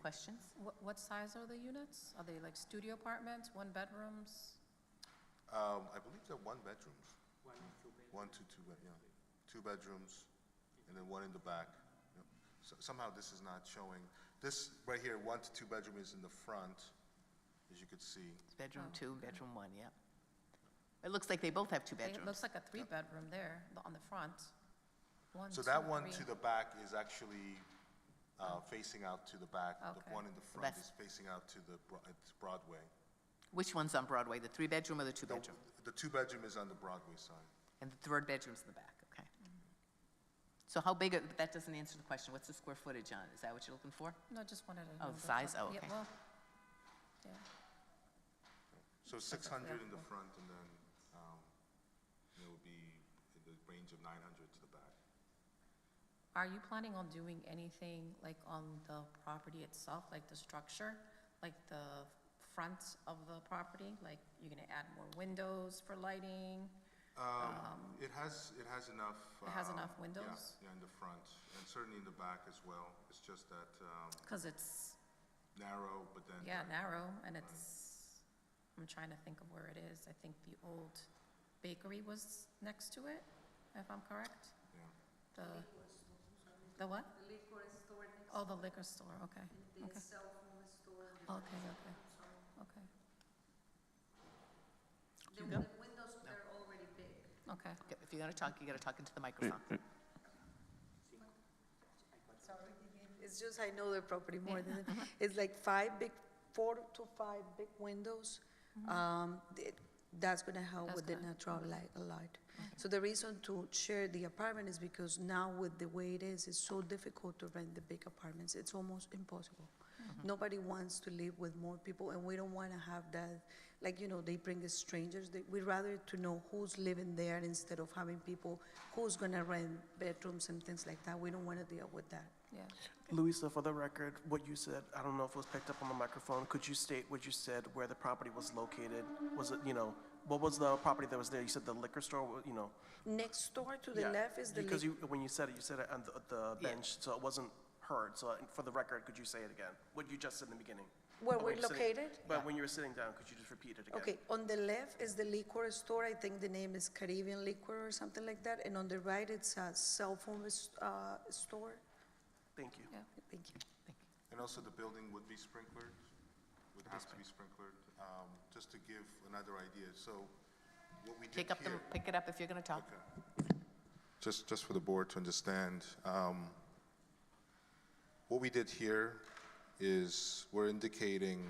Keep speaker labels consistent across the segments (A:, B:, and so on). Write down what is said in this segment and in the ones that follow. A: Questions?
B: What, what size are the units? Are they like studio apartments, one bedrooms?
C: Um, I believe they're one bedrooms. One, two, two, bed- yeah, two bedrooms, and then one in the back. Yep. So- Somehow this is not showing, this right here, one to two bedroom is in the front, as you could see.
A: Bedroom two, bedroom one, yep. It looks like they both have two
B: They- It looks
A: bedrooms.
B: like a three-bedroom there, the- on the front. One,
C: So
B: two,
C: that one to
B: three.
C: the back is actually uh, facing out to the back.
B: Okay.
C: The one in the front
A: best.
C: is facing out to the Bro- it's Broadway.
A: Which one's on Broadway, the three-bedroom or the
C: The-
A: two-bedroom?
C: The two-bedroom is on the Broadway side.
A: And the third bedroom's in the back, okay. So how big, are- but that doesn't answer the question, what's the square footage on? it? Is that what you're looking for?
B: No, just wanted to.
A: Oh,
B: know
A: the size? Oh,
B: Yeah,
A: okay.
B: well, yeah.
C: So 600 in the front, and then um, it would be in the range of 900 to the back.
B: Are you planning on doing anything like on the property itself, like the structure? Like the front of the property? Like you're gonna add more windows for lighting?
C: Um, It has, it has enough.
B: It has
C: um,
B: enough
C: yeah,
B: windows?
C: Yeah, in the front, and certainly in the back as well. It's just that um,
B: Cause it's,
C: narrow, but then. uh,
B: yeah, narrow and it's, I'm trying to think of where it is. I think the old bakery was next to it, if I'm correct.
C: Yeah.
B: The, the what?
D: liquor store next,
B: Oh, the liquor store, okay,
D: the
B: okay,
D: cell phone store. the-
B: okay, okay, okay,
D: The the windows, they're already big.
B: okay.
A: Okay, If you're gonna talk, you gotta talk into the microphone.
C: Mm,
D: Sorry, it's just I know the property more than, it's like five big, four to five big windows. Um, it- That's gonna help
B: That's
D: with the
B: gonna-
D: natural light, a lot. So the reason to share the apartment is because now with the way it is, it's so difficult to rent the big apartments, it's almost impossible.
E: Mm-hmm.
D: Nobody wants to live with more people, and we don't wanna have that, like, you know, they bring the strangers, they, we'd rather to know who's living there instead of having people, who's gonna rent bedrooms and things like that, we don't wanna deal with that.
B: Yeah,
E: Louisa, for the record, what you said, I don't know if it was picked up on the microphone. Could you state what you said, where the property was located? Was it, you know, what was the property that was there? You said the liquor store, wa- you know?
D: Next door to the
E: Yeah,
D: left is the
E: Because
D: liquor.
E: you, when you said it, you said it on the- the bench, so it wasn't heard. So uh, for the record, could you say it again? What you just said in the beginning?
D: Where
E: But
D: we're
E: when you were sitting-
D: located?
E: But when you were sitting down, could you just repeat it again?
D: Okay, on the left is the liquor store, I think the name is Caribbean Liquor or something like that, and on the right, it's a cell phone s- uh, store.
E: Thank you.
B: yeah.
D: Thank you.
C: And also the building would be sprinklered, would have to be sprinklered, um, just to give another idea. So what we did here.
A: Pick up the, pick it up if you're gonna talk.
C: Okay. Just, just for the board to understand, um, what we did here is we're indicating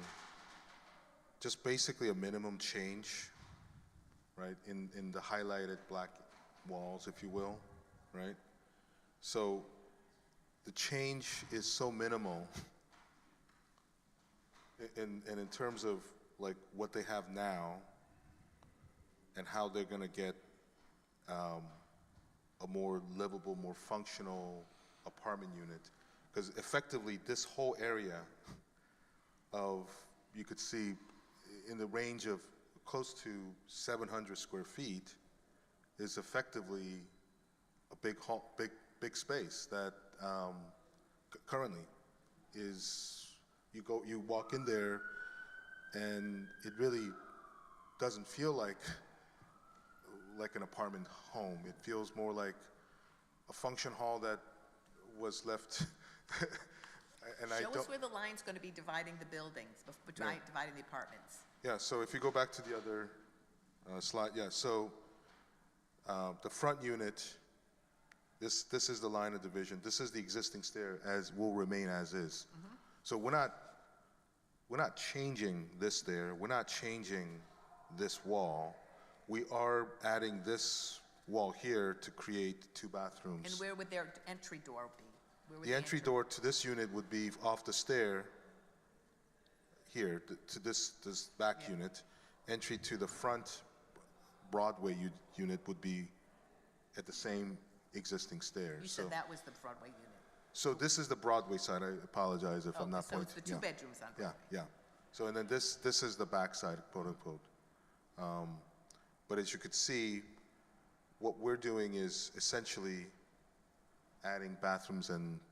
C: just basically a minimum change, right, in, in the highlighted black walls, if you will, right? So the change is so minimal i- in, and in terms of like what they have now and how they're gonna get a more livable, more functional apartment unit. Because effectively, this whole area of, you could see in the range of close to 700 square feet is effectively a big, hall, big, big space that um, c- currently is, you go, you walk in there and it really doesn't feel like like an apartment home. It feels more like a function hall that was left. and I
A: Show us
C: don't,
A: where the line's gonna be dividing the buildings, bef- divi- dividing the apartments.
C: yeah, so if you go back to the other uh, slide, yeah, so uh, the front unit, this, this is the line of division. This is the existing stair as will remain as is.
A: Mm-hmm.
C: So we're not, we're not changing this stair. We're not changing this wall. We are adding this wall here to create two bathrooms.
A: And where would their entry door be? Where would
C: The entry door to this unit would be off the stair here, t- to this, this back unit. Entry to the front Broadway u- unit would be at the same existing stair.
A: You
C: So,
A: said that was the Broadway unit.
C: so this is the Broadway side. I apologize if I'm
A: Okay,
C: not
A: So it's
C: pointing.
A: the two
C: yeah.
A: bedrooms on
C: Yeah,
A: Broadway.
C: yeah. So, and then this, this is the backside, quote unquote. Um, But as you could see, what we're doing is essentially adding bathrooms and